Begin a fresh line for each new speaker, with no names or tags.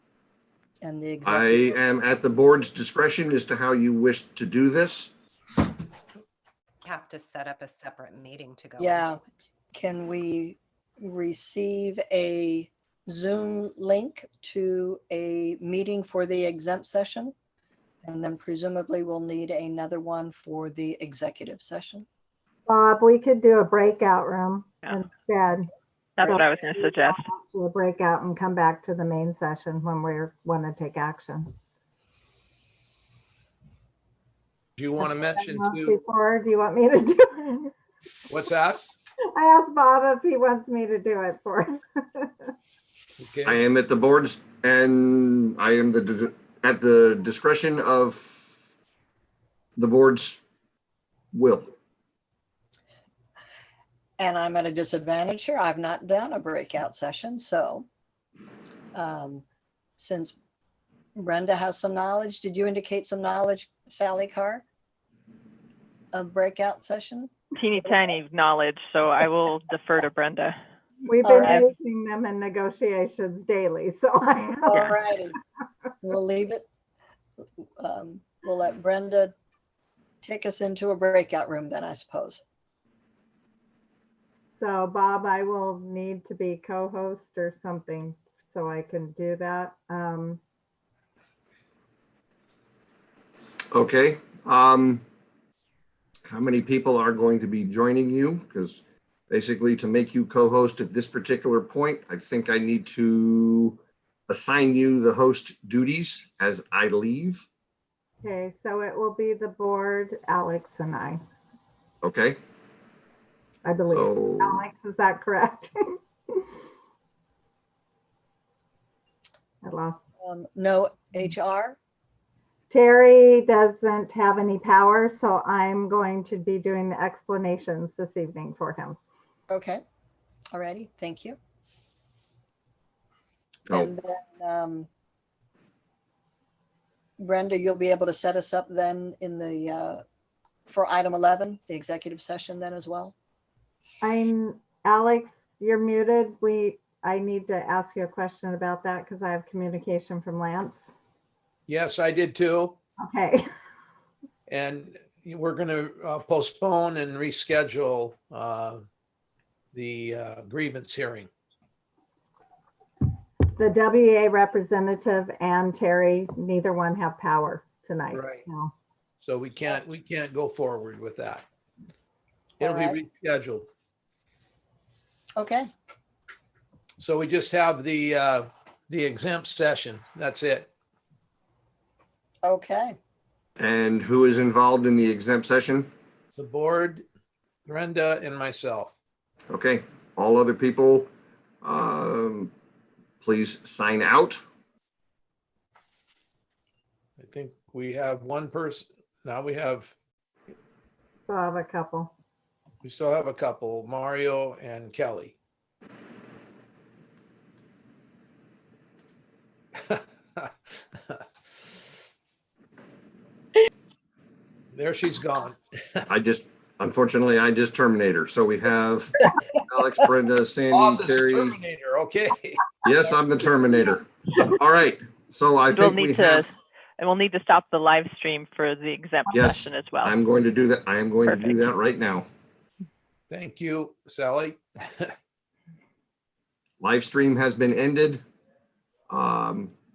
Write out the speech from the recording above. and the
I
executive.
am at the board's discretion as to how you wish to do this.
have to set up a separate meeting to go.
Yeah.
into it.
Can we receive a Zoom link to a meeting for the exempt session? And then presumably we'll need another one for the executive session.
Bob, we could do a breakout room
Yeah.
instead.
That's what I was going to
We
suggest.
go out To a breakout and come back to the main session when we're, want to take action.
Do you want to mention too,
Before, do you want me to do it?
what's that?
I asked Bob if he wants me to do it for him.
I
Okay,
am at the board's and I am the, at the discretion of the board's will.
And I'm at a disadvantage here. I've not done a breakout session, so. um, Since Brenda has some knowledge, did you indicate some knowledge, Sally Carr? Of breakout session?
Teeny tiny knowledge, so I will defer to Brenda.
We've
All
been
right.
facing them in negotiations daily, so I
All
Yeah.
righty. We'll leave it. um, We'll let Brenda take us into a breakout room then, I suppose.
So Bob, I will need to be co-host or something so I can do that. Um,
Okay, um, how many people are going to be joining you? Because basically to make you co-host at this particular point, I think I need to assign you the host duties as I leave,
okay, so it will be the board, Alex and I,
okay?
I believe.
So,
Alex, is that correct? I lost.
Um, No HR?
Terry doesn't have any power, so I'm going to be doing the explanations this evening for him.
Okay. All righty. Thank you.
oh,
And then, um, Brenda, you'll be able to set us up then in the, uh, for item 11, the executive session then as well?
I'm, Alex, you're muted. We, I need to ask you a question about that because I have communication from Lance.
yes, I did too.
Okay,
And we're going to postpone and reschedule uh, the uh, grievance hearing.
the WA representative and Terry, neither one have power tonight.
Right.
No.
So we can't, we can't go forward with that. It'll be
Alright.
rescheduled.
Okay,
So we just have the, uh, the exempt session. That's it.
okay.
and who is involved in the exempt session?
The board, Brenda and myself.
Okay, all other people, um, please sign out.
I think we have one person, now we have,
So I have a couple.
we still have a couple, Mario and Kelly. There she's gone.
I just, unfortunately, I just terminate her. So we have Alex, Brenda, Sandy,
Office
Terry.
Terminator, okay.
Yes, I'm the Terminator. All right, so I
We'll
think we
need to,
have,
and we'll need to stop the live stream for the exempt
Yes,
session as well.
I'm going to do that. I am going to do
Perfect.
that right now.
Thank you, Sally.
Live stream has been ended. Um,